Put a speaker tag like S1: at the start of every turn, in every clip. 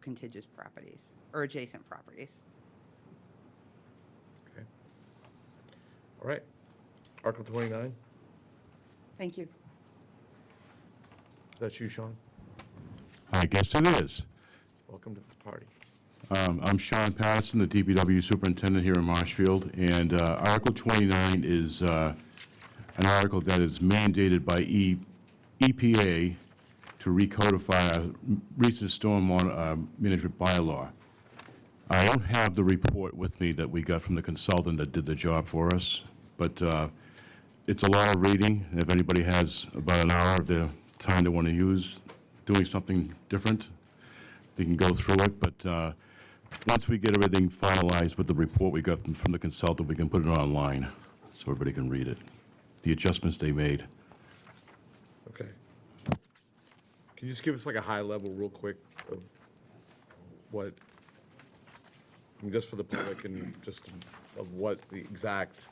S1: contiguous properties or adjacent properties.
S2: Okay. All right. Article 29,
S1: Thank you.
S2: that's you, Sean.
S3: I guess it is.
S2: Welcome to the party.
S3: Um, I'm Sean Patterson, the DPW Superintendent here in Marshfield, and uh, Article 29 is uh, an article that is mandated by E- EPA to recodify our recent stormwater uh, management bylaw. I don't have the report with me that we got from the consultant that did the job for us, but uh, it's a lot of reading. If anybody has about an hour of their time they want to use doing something different, they can go through it, but uh, once we get everything finalized with the report we got from the consultant, we can put it online so everybody can read it, the adjustments they made.
S2: Okay. Can you just give us like a high level real quick of what, I mean, just for the public and just of what the exact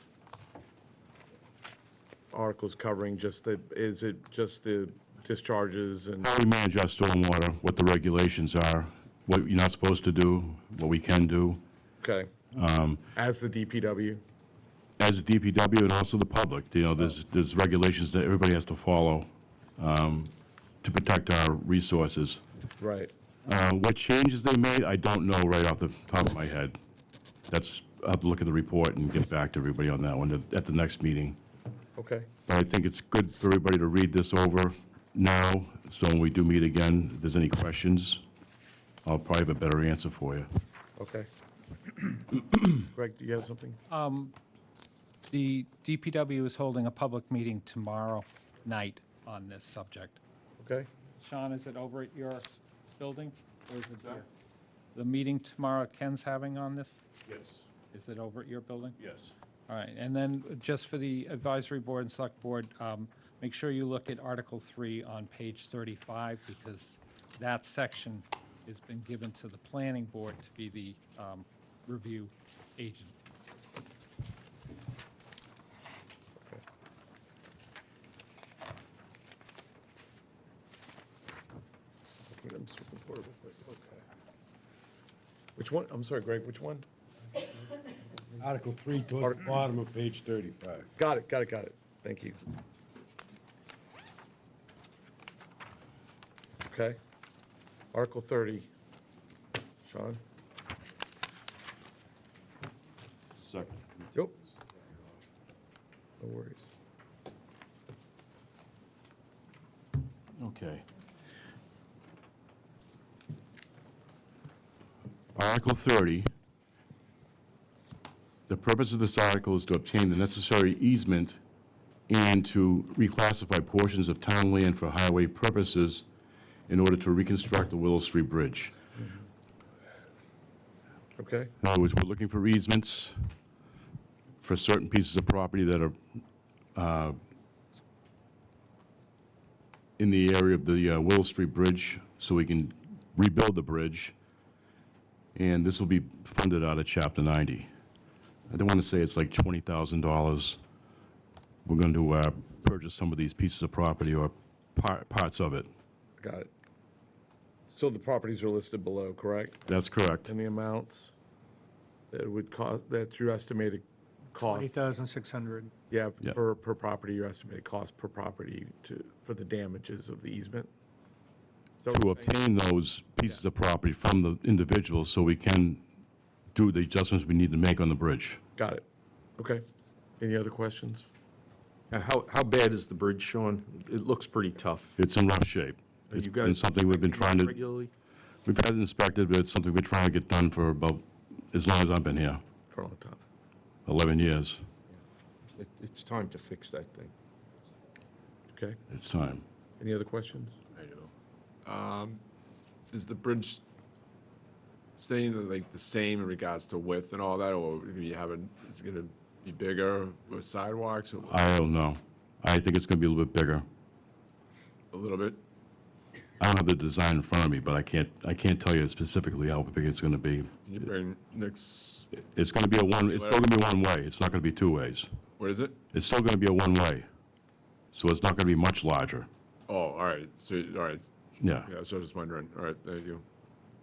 S2: article's covering, just the, is it just the discharges and,
S3: How we manage our stormwater, what the regulations are, what you're not supposed to do, what we can do,
S2: okay? As the DPW?
S3: as a DPW and also the public, you know, there's, there's regulations that everybody has to follow um, to protect our resources.
S2: Right.
S3: Uh, What changes they made, I don't know right off the top of my head. That's, I'll have to look at the report and get back to everybody on that one at- at the next meeting.
S2: Okay,
S3: But I think it's good for everybody to read this over now, so when we do meet again, if there's any questions, I'll probably have a better answer for you.
S2: okay. Greg, do you have something?
S4: The DPW is holding a public meeting tomorrow night on this subject.
S2: Okay,
S4: Sean, is it over at your building or is it here? The meeting tomorrow Ken's having on this,
S3: Yes,
S4: is it over at your building?
S3: yes.
S4: All right, and then just for the advisory board and select board, um, make sure you look at Article 3 on page 35 because that section has been given to the planning board to be the um, review agent.
S2: I'm switching forward real quick. Okay. Which one, I'm sorry, Greg, which one?
S5: Article three, towards the bottom of page thirty-five.
S2: Got it, got it, got it. Thank you. Okay. Article 30. Sean?
S3: Second.
S2: Yep. No worries.
S3: Okay. Article 30. The purpose of this article is to obtain the necessary easement and to reclassify portions of town land for highway purposes in order to reconstruct the Willow Street Bridge.
S2: Okay,
S3: In other words, we're looking for easements for certain pieces of property that are uh, in the area of the uh, Willow Street Bridge, so we can rebuild the bridge. And this will be funded out of Chapter 90. I don't want to say it's like $20,000. We're going to uh, purchase some of these pieces of property or par- parts of it.
S2: got it. So the properties are listed below, correct?
S3: That's correct.
S2: And the amounts that would cost, that's your estimated cost?
S6: 8,600.
S2: Yeah,
S3: Yeah.
S2: per, per property, your estimated cost per property to, for the damages of the easement? So
S3: to obtain those pieces of property from the individuals so we can do the adjustments we need to make on the bridge.
S2: Got it. Okay. Any other questions?
S7: Now, How, how bad is the bridge, Sean? It looks pretty tough.
S3: It's in rough shape.
S7: Are
S3: It's
S7: you guys
S3: been something we've been trying
S7: inspecting it
S3: to,
S7: Regularly?
S3: we've had it inspected, but it's something we're trying to get done for about, as long as I've been here,
S2: For a long time.
S3: 11 years.
S7: It, it's time to fix that thing.
S2: Okay.
S3: It's time.
S2: Any other questions?
S8: Um, is the bridge staying like the same in regards to width and all that, or do you have a, it's gonna be bigger with sidewalks, or
S3: I don't know. I think it's going to be a little bit bigger.
S8: a little bit?
S3: I don't have the design in front of me, but I can't, I can't tell you specifically how big it's going to be.
S8: Can you bring next,
S3: It's going to be a one, it's still going to be one way. It's not going to be two ways.
S8: what is it?
S3: It's still going to be a one way. So it's not going to be much larger.
S8: Oh, all right, so, all right,
S3: Yeah.
S8: yeah, so I was just wondering, all right, thank you.